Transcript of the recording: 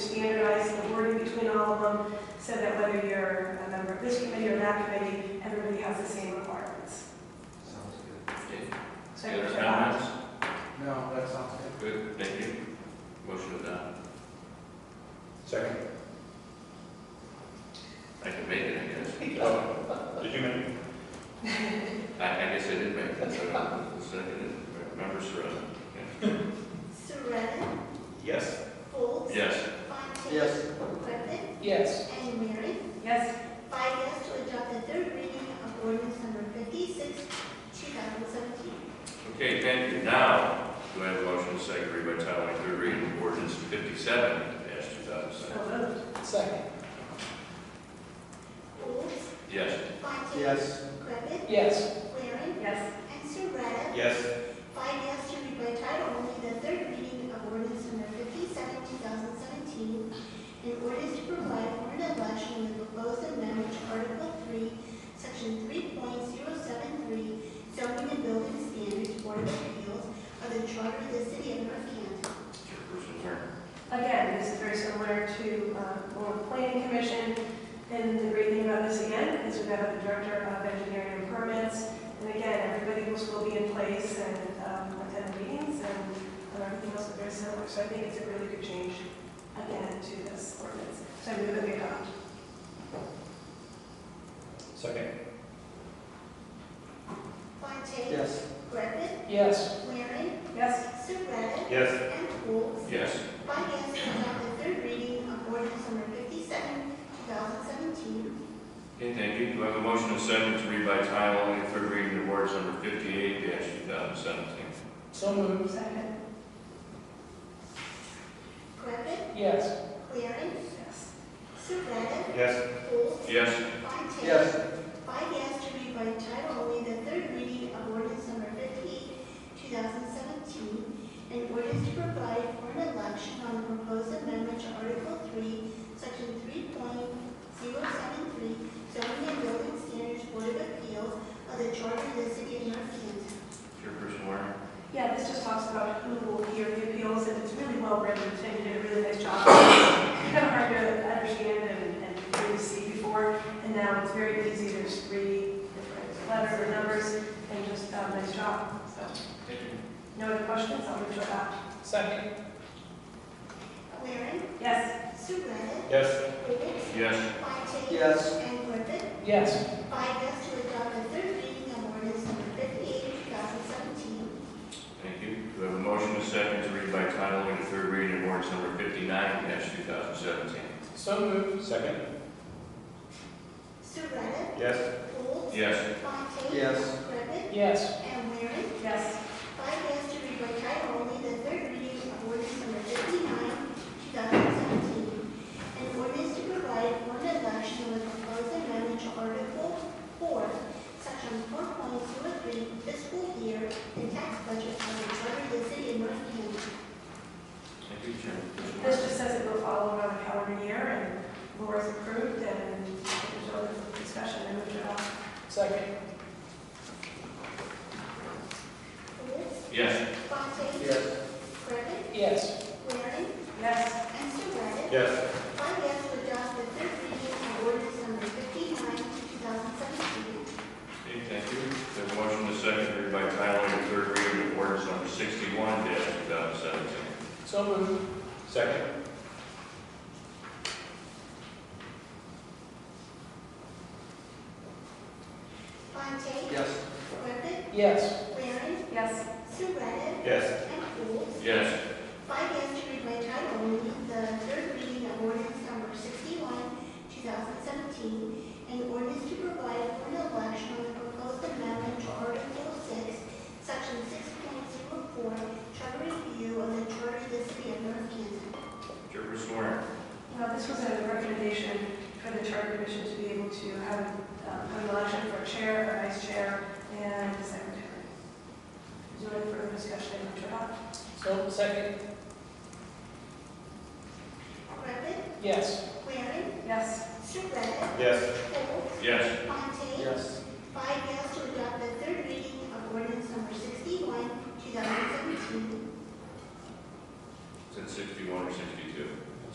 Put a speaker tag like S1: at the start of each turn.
S1: standardize the wording between all of them, so that whether you're a member of this committee or that committee, everybody has the same requirements.
S2: Sounds good.
S1: So uh, I
S3: Any
S1: can
S3: other
S1: check out.
S3: comments?
S2: No, that sounds good.
S3: Good, thank you. Motion adopt.
S4: Second.
S3: I can make it, I guess.
S4: Oh, Did you make?
S3: I, I guess I did make it, so I'm seconded. Member Serrano?
S5: Surratt,
S4: Yes.
S5: Folds,
S3: Yes.
S5: Fontaine.
S2: Yes.
S5: Griffin,
S6: yes,
S5: and Mary.
S1: Yes,
S5: Five yes to adopt the third reading of ordinance number fifty-six, two thousand seventeen.
S3: Okay, thank you. Now, do I have a motion to second read by title only, third reading of ordinance fifty-seven dash two thousand
S1: so
S3: seven?
S1: moved.
S6: second,
S5: Folds,
S3: Yes.
S5: Fontaine.
S2: Yes.
S5: Griffin,
S6: yes,
S5: Waring,
S1: Yes,
S5: and Surratt.
S4: Yes.
S5: Five yes to read by title only the third reading of ordinance number fifty-seven, two thousand seventeen, in ordinance to provide for an election of the proposed amendment to Article Three, Section three point zero seven three, zoning and building standards, Board of Appeals, of the Charter of the City of North Canton.
S3: Chairperson Turner?
S1: again, this is very similar to, uh, Board of Planning Commission. And the great thing about this again is we've got the Director of Engineering and Permits. And again, everybody will still be in place and, um, attend meetings and uh, everything else is very similar. So I think it's a really good change again to this ordinance. So I move that we adopt.
S4: Second.
S5: Fontaine.
S2: Yes.
S5: Griffin,
S6: yes,
S5: Waring,
S1: Yes,
S5: Surratt,
S4: Yes.
S5: and Folds.
S3: Yes.
S5: By yes to adopt the third reading of ordinance number fifty-seven, two thousand seventeen,
S3: Okay, thank you. Do I have a motion to second to read by title only, third reading of ordinance number fifty-eight dash two thousand seventeen?
S6: so moved,
S1: second.
S5: Griffin,
S6: yes,
S5: Waring,
S1: Yes,
S5: Surratt,
S4: Yes.
S5: Folds,
S3: Yes.
S5: Fontaine.
S2: Yes.
S5: Five yes to read by title only the third reading of ordinance number fifty, two thousand seventeen, an ordinance to provide for an election on the proposed amendment to Article Three, Section three point zero seven three, zoning and building standards Board of Appeals of the Charter of the City of North Canton.
S3: Chairperson Warren?
S1: Yeah, this just talks about who will hear the appeals, and it's really well written, and you did a really nice job. It's Kind of hard to understand and, and really see before, and now it's very easy, there's three different letters or numbers, and just, um, nice job, so. No other questions, I'll move to adopt.
S6: second,
S5: Waring,
S1: Yes,
S5: Surratt,
S4: Yes.
S5: Golds,
S3: Yes.
S5: Fontaine.
S2: Yes.
S5: And Griffin.
S6: yes,
S5: Five yes to adopt the third reading of ordinance number fifty-eight, two thousand seventeen,
S3: Thank you. Do I have a motion to second to read by title only, third reading of ordinance number fifty-nine dash two thousand seventeen?
S6: so moved,
S4: Second.
S5: Surratt,
S4: Yes.
S5: Golds,
S3: Yes.
S5: Fontaine.
S2: Yes.
S5: Griffin.
S6: yes,
S5: And Waring.
S1: yes,
S5: Five yes to read by title only the third reading of ordinance number fifty-nine, two thousand seventeen. An ordinance to provide for an election of a proposed amendment to Article Four, Section four point zero three, fiscal year and tax budget of the Charter of the City of North Canton.
S3: Thank you, Chairperson
S1: this
S3: Warren.
S1: just says it will follow around the calendar year, and Laura's approved, and there's no other discussion, I move to adopt.
S6: second,
S5: Golds,
S3: Yes.
S5: Fontaine.
S2: Yes.
S5: Griffin.
S6: yes,
S5: Waring.
S1: Yes,
S5: And Surratt.
S4: Yes.
S5: Five yes to adopt the third reading of ordinance number fifty-nine, two thousand seventeen.
S3: Okay, thank you. Do I have a motion to second to read by title only, third reading of ordinance number sixty-one dash two thousand seventeen?
S6: so moved,
S4: Second.
S5: Fontaine.
S2: Yes.
S5: Griffin.
S6: yes,
S5: Waring.
S1: yes,
S5: Surratt.
S4: Yes.
S5: And Folds.
S3: Yes.
S5: Five yes to read by title only the third reading of ordinance number sixty-one, two thousand seventeen, an ordinance to provide for an election on the proposed amendment to Article Six, Section six point zero four, charter review of the charter of the city of North Canton.
S3: Chairperson Warren?
S1: Now, this was a recommendation for the charter commission to be able to have um, have an election for a chair, a vice chair, and a secretary. Is there any further discussion on that?
S6: so, second,
S5: Griffin,
S6: yes,
S5: Waring,
S1: Yes,
S5: Surratt,
S4: Yes.
S5: Folds,
S3: Yes.
S5: Fontaine.
S2: Yes.
S5: Five yes to adopt the third reading of ordinance number sixty-one, two thousand seventeen.
S3: Is it sixty-one or sixty-two?